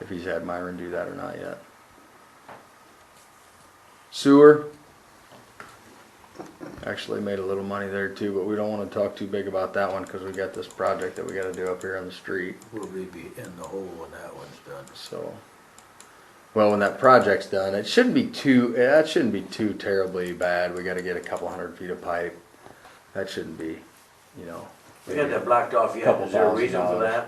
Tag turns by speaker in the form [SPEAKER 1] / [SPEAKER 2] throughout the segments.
[SPEAKER 1] if he's had Myron do that or not yet. Sewer. Actually made a little money there too, but we don't wanna talk too big about that one, cause we got this project that we gotta do up here on the street,
[SPEAKER 2] We'll be in the hole when that one's done.
[SPEAKER 1] so. Well, when that project's done, it shouldn't be too, eh, that shouldn't be too terribly bad, we gotta get a couple hundred feet of pipe. That shouldn't be, you know.
[SPEAKER 3] We had that blacked off yet,
[SPEAKER 1] Couple
[SPEAKER 3] is there a
[SPEAKER 1] thousand
[SPEAKER 3] reason for
[SPEAKER 1] dollars.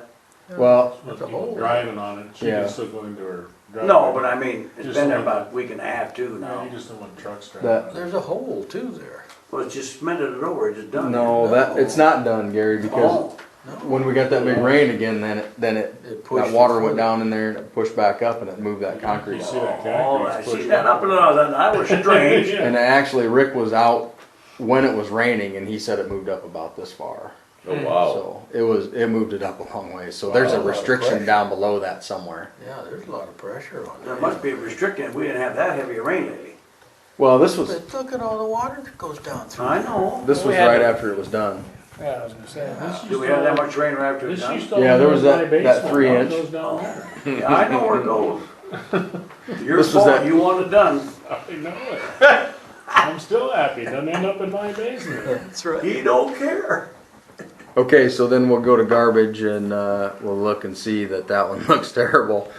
[SPEAKER 3] that?
[SPEAKER 1] Well,
[SPEAKER 2] It's a
[SPEAKER 4] People
[SPEAKER 2] hole.
[SPEAKER 4] Driving on it, she
[SPEAKER 1] Yeah.
[SPEAKER 4] can still go into her driveway.
[SPEAKER 3] No, but I mean, it's
[SPEAKER 4] Just
[SPEAKER 3] been there
[SPEAKER 4] like-
[SPEAKER 3] about a week and a half too
[SPEAKER 4] No, You
[SPEAKER 3] now.
[SPEAKER 4] just don't want trucks
[SPEAKER 1] That-
[SPEAKER 4] driving. on it.
[SPEAKER 2] There's a hole too there.
[SPEAKER 3] Well, it's just cemented it over, it's just done.
[SPEAKER 1] no, that, it's not done, Gary, because
[SPEAKER 3] Oh,
[SPEAKER 2] No,
[SPEAKER 1] when we got that big rain again, then it, then it,
[SPEAKER 2] It pushed
[SPEAKER 1] that water
[SPEAKER 2] the
[SPEAKER 1] went
[SPEAKER 2] foot.
[SPEAKER 1] down in there and it pushed back up and it moved that concrete
[SPEAKER 4] You
[SPEAKER 1] out.
[SPEAKER 4] see that
[SPEAKER 3] oh, I
[SPEAKER 4] cactus
[SPEAKER 3] see
[SPEAKER 4] pushed
[SPEAKER 3] that up and down, that, that was strange.
[SPEAKER 1] And actually, Rick was out when it was raining, and he said it moved up about this far.
[SPEAKER 5] Oh, wow.
[SPEAKER 1] So it was it moved it up a long way. So there's a
[SPEAKER 2] Wow, a lot of
[SPEAKER 1] restriction
[SPEAKER 2] pressure.
[SPEAKER 1] down below that somewhere.
[SPEAKER 2] yeah, there's a lot of pressure on
[SPEAKER 3] There
[SPEAKER 2] that.
[SPEAKER 3] must be a restriction, we didn't have that heavy a rain lately.
[SPEAKER 1] Well, this was
[SPEAKER 2] But look at all the water that goes down through.
[SPEAKER 3] I know.
[SPEAKER 1] this was right after it was done.
[SPEAKER 6] Yeah, I was gonna say, this used
[SPEAKER 3] Uh, Do we
[SPEAKER 6] to
[SPEAKER 3] have that
[SPEAKER 6] all-
[SPEAKER 3] much rain right after it's
[SPEAKER 6] This
[SPEAKER 3] done?
[SPEAKER 6] used to all
[SPEAKER 1] Yeah, there was
[SPEAKER 6] be my
[SPEAKER 1] that- that
[SPEAKER 6] basement.
[SPEAKER 1] three
[SPEAKER 6] Now it
[SPEAKER 1] inch.
[SPEAKER 6] goes down there.
[SPEAKER 3] Yeah, I know where it goes. Your
[SPEAKER 1] This was
[SPEAKER 3] fault,
[SPEAKER 1] that-
[SPEAKER 3] you want it done.
[SPEAKER 4] I know it. I'm still happy, it doesn't end up in my basement.
[SPEAKER 2] That's right.
[SPEAKER 3] He don't care.
[SPEAKER 1] Okay, so then we'll go to garbage and uh, we'll look and see that that one looks terrible.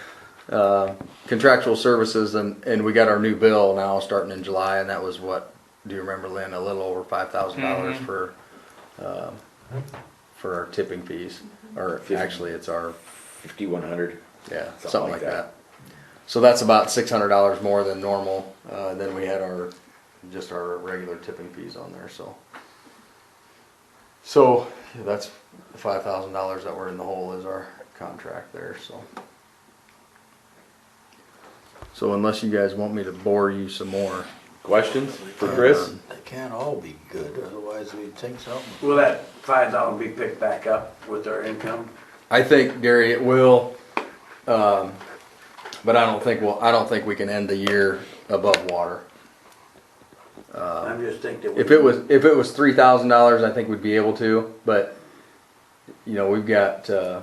[SPEAKER 1] Uh, contractual services and and we got our new bill now starting in July, and that was what do you remember, Lynn? A little over five dollars for um for our tipping fees, or actually, it's our
[SPEAKER 5] 5,100.
[SPEAKER 1] Yeah,
[SPEAKER 5] Something
[SPEAKER 1] something like
[SPEAKER 5] like
[SPEAKER 1] that. So that's about six hundred dollars more than normal, uh, then we had our, just our regular tipping fees on there, so. So, yeah, that's the five thousand dollars that we're in the hole is our contract there, so. So unless you guys want me to bore you some more.
[SPEAKER 5] Questions
[SPEAKER 3] uh,
[SPEAKER 5] for Chris?
[SPEAKER 1] um,
[SPEAKER 2] They can't all be good, otherwise we'd think something.
[SPEAKER 3] Will that five thousand be picked back up with our income?
[SPEAKER 1] I think, Gary, it will, um, but I don't think, well, I don't think we can end the year above water.
[SPEAKER 3] I'm just thinking. that we-
[SPEAKER 1] Uh, If it was, if it was three thousand dollars, I think we'd be able to, but, you know, we've got, uh,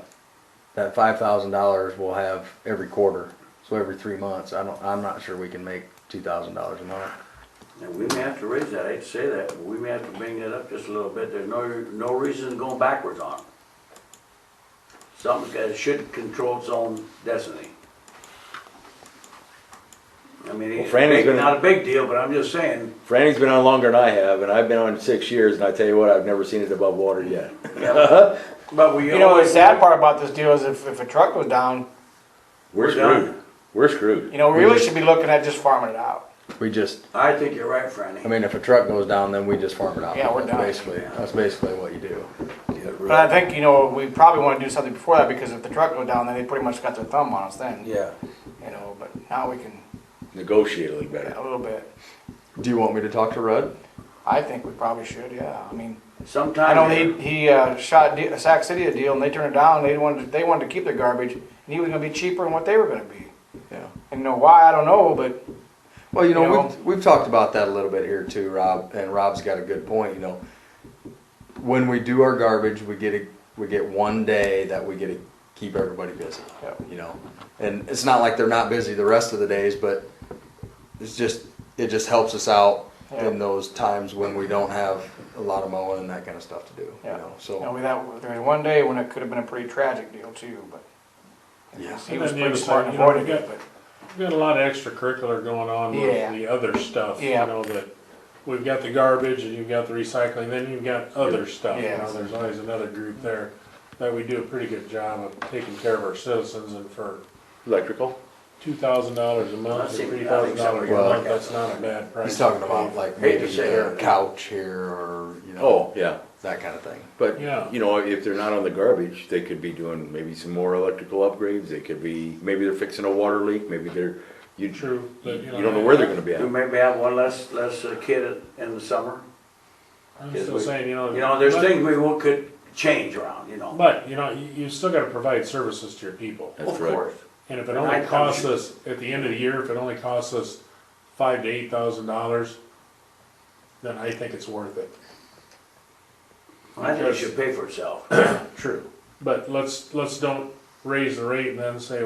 [SPEAKER 1] that five thousand dollars we'll have every quarter, so every three months, I don't, I'm not sure we can make two thousand dollars a month.
[SPEAKER 3] And we may have to raise that, I hate to say that, but we may have to bring that up just a little bit, there's no, no reason going backwards on it. Something's got, it should control its own destiny. I mean, it's
[SPEAKER 5] Fran is
[SPEAKER 3] big-
[SPEAKER 5] gonna-
[SPEAKER 3] not a big deal, but I'm just saying,
[SPEAKER 5] Franny's been on longer than I have, and I've been on six years, and I tell you what, I've never seen it above water yet.
[SPEAKER 3] yeah, but we.
[SPEAKER 6] You know, the
[SPEAKER 3] always-
[SPEAKER 6] sad part about this deal is if, if a truck goes down,
[SPEAKER 5] We're
[SPEAKER 3] We're done.
[SPEAKER 5] screwed. We're screwed.
[SPEAKER 6] you know, we really should be looking at just farming it out.
[SPEAKER 1] We just,
[SPEAKER 3] I think you're right,
[SPEAKER 1] I
[SPEAKER 3] Franny.
[SPEAKER 1] mean, if a truck goes down, then we just farm it out.
[SPEAKER 6] Yeah, we're
[SPEAKER 1] That's
[SPEAKER 6] done.
[SPEAKER 1] Basically, that's basically what you do.
[SPEAKER 2] Get rid
[SPEAKER 6] But I think, you know, we probably wanna do something before that, because if the truck goes down, then they pretty much got their thumb on us then.
[SPEAKER 2] Yeah,
[SPEAKER 6] You know, but now we can,
[SPEAKER 5] Negotiate a little better.
[SPEAKER 6] a little bit.
[SPEAKER 1] Do you want me to talk to Rudd?
[SPEAKER 6] I think we probably should, yeah, I mean, I know he,
[SPEAKER 3] Sometimes,
[SPEAKER 6] he, uh, shot De- Sac City a deal, and they turned it down, they wanted, they wanted to keep their garbage, and he was gonna be cheaper than what they were gonna be.
[SPEAKER 1] Yeah.
[SPEAKER 6] And you know why, I don't know, but
[SPEAKER 1] Well, you know,
[SPEAKER 6] You know?
[SPEAKER 1] we've, we've talked about that a little bit here too, Rob, and Rob's got a good point, you know. When we do our garbage, we get a, we get one day that we get to keep everybody busy,
[SPEAKER 6] Yep.
[SPEAKER 1] you know. And it's not like they're not busy the rest of the days, but it's just, it just helps us out in
[SPEAKER 6] Yeah.
[SPEAKER 1] those times when we don't have a lot of mowing and that kind of stuff to do, you
[SPEAKER 6] Yeah.
[SPEAKER 1] know,
[SPEAKER 6] You know,
[SPEAKER 1] so.
[SPEAKER 6] we that, there was one day when it could have been a pretty tragic deal too, but
[SPEAKER 1] Yeah.
[SPEAKER 6] he was
[SPEAKER 4] And then the
[SPEAKER 6] pretty
[SPEAKER 4] other
[SPEAKER 6] smart
[SPEAKER 4] side,
[SPEAKER 6] in
[SPEAKER 4] you know, we
[SPEAKER 6] avoiding it,
[SPEAKER 4] got-
[SPEAKER 6] but.
[SPEAKER 4] We've got a lot of extracurricular going on
[SPEAKER 6] Yeah.
[SPEAKER 4] with the other stuff, you
[SPEAKER 6] Yeah.
[SPEAKER 4] know, that, we've got the garbage, and you've got the recycling, then you've got other stuff. You
[SPEAKER 6] Yeah.
[SPEAKER 4] know, there's always another group there, that we do a pretty good job of taking care of our citizens, and for
[SPEAKER 5] Electrical?
[SPEAKER 4] two thousand dollars a
[SPEAKER 3] I
[SPEAKER 4] month, or
[SPEAKER 3] think-
[SPEAKER 4] three thousand dollars a
[SPEAKER 1] Well-
[SPEAKER 4] month, that's not a bad price.
[SPEAKER 1] He's talking about like
[SPEAKER 3] Hate to
[SPEAKER 1] maybe
[SPEAKER 3] say
[SPEAKER 1] a
[SPEAKER 3] it.
[SPEAKER 1] couch here or, you know,
[SPEAKER 5] Oh, yeah.
[SPEAKER 1] that kind of thing.
[SPEAKER 5] But,
[SPEAKER 4] Yeah.
[SPEAKER 5] you know, if they're not on the garbage, they could be doing maybe some more electrical upgrades. They could be, maybe they're fixing a water leak, maybe they're, you,
[SPEAKER 4] True, but,
[SPEAKER 5] you don't know where they're gonna be
[SPEAKER 3] we
[SPEAKER 5] at.
[SPEAKER 3] maybe have one less, less uh, kid in the summer.
[SPEAKER 4] I'm still saying, you know.
[SPEAKER 3] You know, there's
[SPEAKER 4] but-
[SPEAKER 3] things we will- could change around, you know.
[SPEAKER 4] But, you know, you, you still gotta provide services to your people.
[SPEAKER 5] That's
[SPEAKER 3] Of
[SPEAKER 5] right.
[SPEAKER 3] course.
[SPEAKER 4] And if it
[SPEAKER 3] And I-
[SPEAKER 4] only costs us, at the end of the year, if it only costs us five to eight thousand dollars, then I think it's worth it.
[SPEAKER 3] I think it should pay for itself.
[SPEAKER 4] True. But let's, let's don't raise the rate and then say,